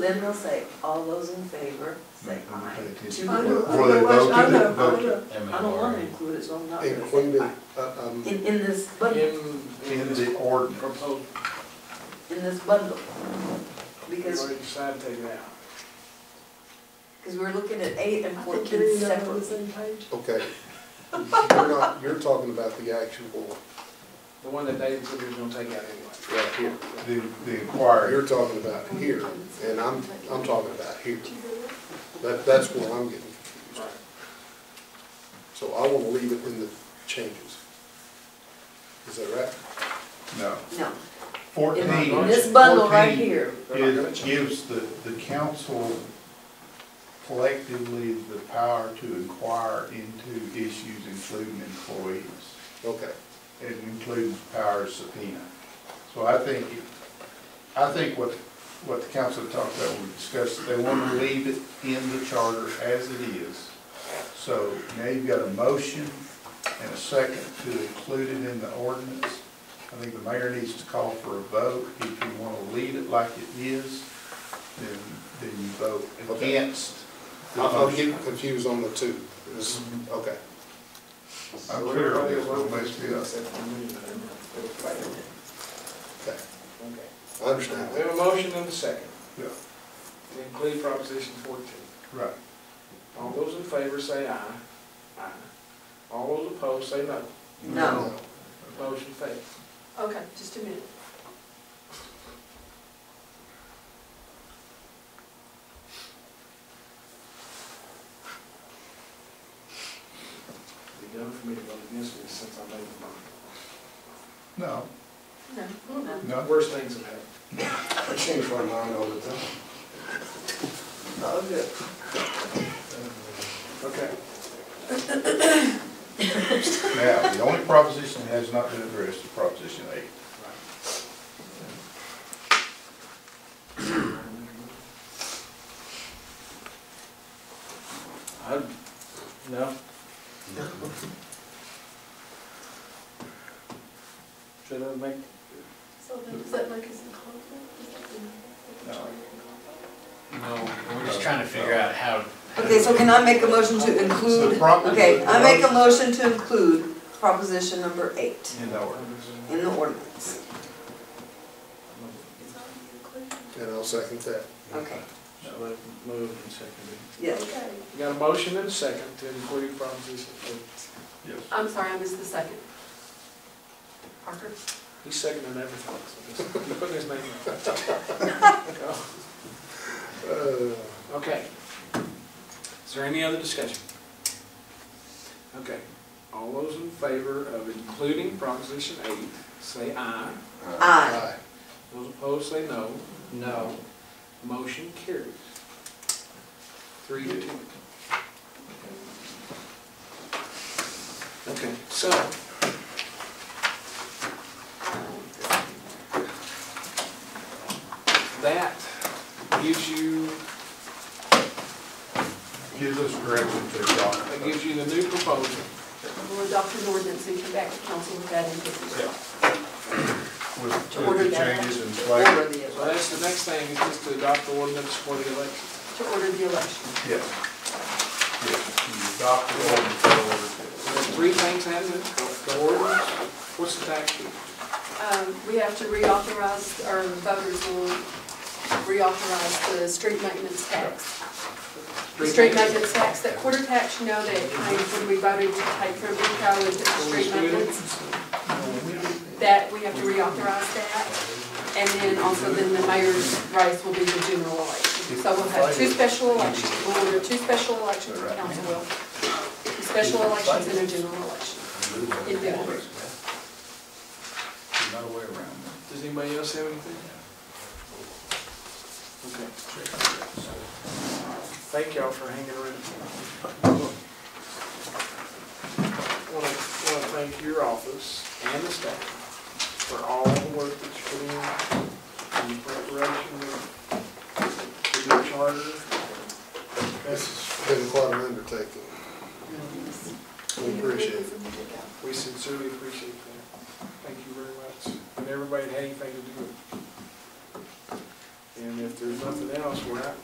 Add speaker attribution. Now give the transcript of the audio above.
Speaker 1: Then they'll say, all those in favor, say aye. Two
Speaker 2: I
Speaker 1: vote.
Speaker 2: know,
Speaker 3: Before they
Speaker 2: otherwise, I
Speaker 3: voted,
Speaker 2: know, I
Speaker 3: voted.
Speaker 2: know.
Speaker 1: I don't want to include it, so I'm not gonna say
Speaker 3: including,
Speaker 1: aye.
Speaker 3: uh, um,
Speaker 1: In, in this bundle,
Speaker 4: In,
Speaker 3: in the ordinance.
Speaker 4: proposed,
Speaker 1: in this bundle.
Speaker 4: we
Speaker 1: Because,
Speaker 4: already decided to take it out.
Speaker 1: because we're looking at eight and
Speaker 2: I think
Speaker 1: fourteen
Speaker 2: you're not on
Speaker 1: separately.
Speaker 2: the same page.
Speaker 3: Okay. You're not, you're talking about the actual,
Speaker 4: The one that David said he was gonna take out anyway.
Speaker 3: right here.
Speaker 5: The, the inquiry,
Speaker 3: You're talking about here, and I'm, I'm talking about here. That, that's where I'm getting confused. So I want to leave it in the changes. Is that right?
Speaker 5: no.
Speaker 1: No,
Speaker 5: Fourteen.
Speaker 1: in in this bundle right
Speaker 5: 14
Speaker 1: here,
Speaker 4: They're not gonna
Speaker 5: It
Speaker 4: change
Speaker 5: gives the, the council collectively the power to inquire into issues including employees
Speaker 3: Okay.
Speaker 5: and including the power of subpoena. So I think, I think what, what the council talked about, we discussed, they want to leave it in the charter as it is. So now you've got a motion and a second to include it in the ordinance. I think the mayor needs to call for a vote. If you want to leave it like it is, then, then you vote
Speaker 3: Okay.
Speaker 5: against. the
Speaker 3: I'm, I'm
Speaker 5: motion.
Speaker 3: getting confused on the two. This- okay.
Speaker 4: it.
Speaker 5: I'm
Speaker 4: So
Speaker 5: clear on
Speaker 4: everybody
Speaker 5: this one,
Speaker 4: voted
Speaker 5: let's do that.
Speaker 4: except for me, but I'm not. It was right there.
Speaker 3: Okay.
Speaker 4: Okay.
Speaker 3: I understand
Speaker 4: We
Speaker 3: that.
Speaker 4: have a motion and a second
Speaker 5: Yeah,
Speaker 4: to include proposition fourteen.
Speaker 5: right.
Speaker 4: All those in favor say aye. Aye. All those opposed say no.
Speaker 1: no.
Speaker 4: Motion fails.
Speaker 2: Okay, just a minute.
Speaker 4: It'd be done for me to vote against this since I made the
Speaker 5: No,
Speaker 2: No.
Speaker 5: no.
Speaker 4: motion. Worst things have happened.
Speaker 3: I change my mind all the time.
Speaker 1: Oh, good.
Speaker 4: Okay.
Speaker 5: Now, the only proposition that has not been addressed is Proposition eight.
Speaker 4: I, no. Should I make,
Speaker 2: So then, does that make us in conflict? Does that mean that we're
Speaker 6: No, we're just trying to figure out how.
Speaker 1: Okay, so can I make a motion to
Speaker 5: The
Speaker 1: include,
Speaker 5: prop-
Speaker 1: okay, I make a
Speaker 5: the
Speaker 1: motion to include proposition number eight
Speaker 5: In the order.
Speaker 1: in the ordinance.
Speaker 2: It's not included.
Speaker 3: And I'll second that.
Speaker 1: Okay,
Speaker 4: Shall I move and second
Speaker 1: yes.
Speaker 2: Okay,
Speaker 4: it? Got a motion and a second to include proposition fourteen.
Speaker 5: Yes.
Speaker 2: I'm sorry, I missed the second. Parker?
Speaker 4: He's seconding everything, so just, you put his name on.
Speaker 3: Uh,
Speaker 4: Okay. Is there any other discussion? Okay, all those in favor of including Proposition 8, say aye.
Speaker 1: Aye.
Speaker 4: Those opposed, say no. No. Motion carries. Three to two. Okay, so, that gives you,
Speaker 5: Gives us direction to adopt.
Speaker 4: that gives you the new proposal.
Speaker 2: We'll adopt an ordinance and come back to council with that in business.
Speaker 5: With
Speaker 2: To order
Speaker 5: with the
Speaker 2: that.
Speaker 5: changes in
Speaker 1: Order
Speaker 5: place.
Speaker 1: the
Speaker 4: So that's the next thing, is just to adopt the ordinance for the election.
Speaker 2: To order the election.
Speaker 5: Yes. Yes, you adopt the ordinance in order.
Speaker 4: So there's three things happening, the ordinance, what's the tax rate?
Speaker 2: Um, We have to reauthorize, or the voters will reauthorize the street maintenance tax. The street maintenance tax, that quarter tax, you know, that came when we voted to take from Eco into the street maintenance. That, we have to reauthorize that. And then also then the mayor's race will be the general election. So we'll have two special elections, we'll order two special elections, the council will. Special elections and a general election. If they want.
Speaker 5: There's no way around that.
Speaker 4: Does anybody else have anything? Okay. Thank y'all for hanging around. Want to, want to thank your office and the staff for all the work that you put in, in preparation of your charter.
Speaker 3: This has been quite an undertaking. We appreciate it.
Speaker 4: We sincerely appreciate that. Thank you very much. And everybody that had anything to do with it. And if there's nothing else, we're not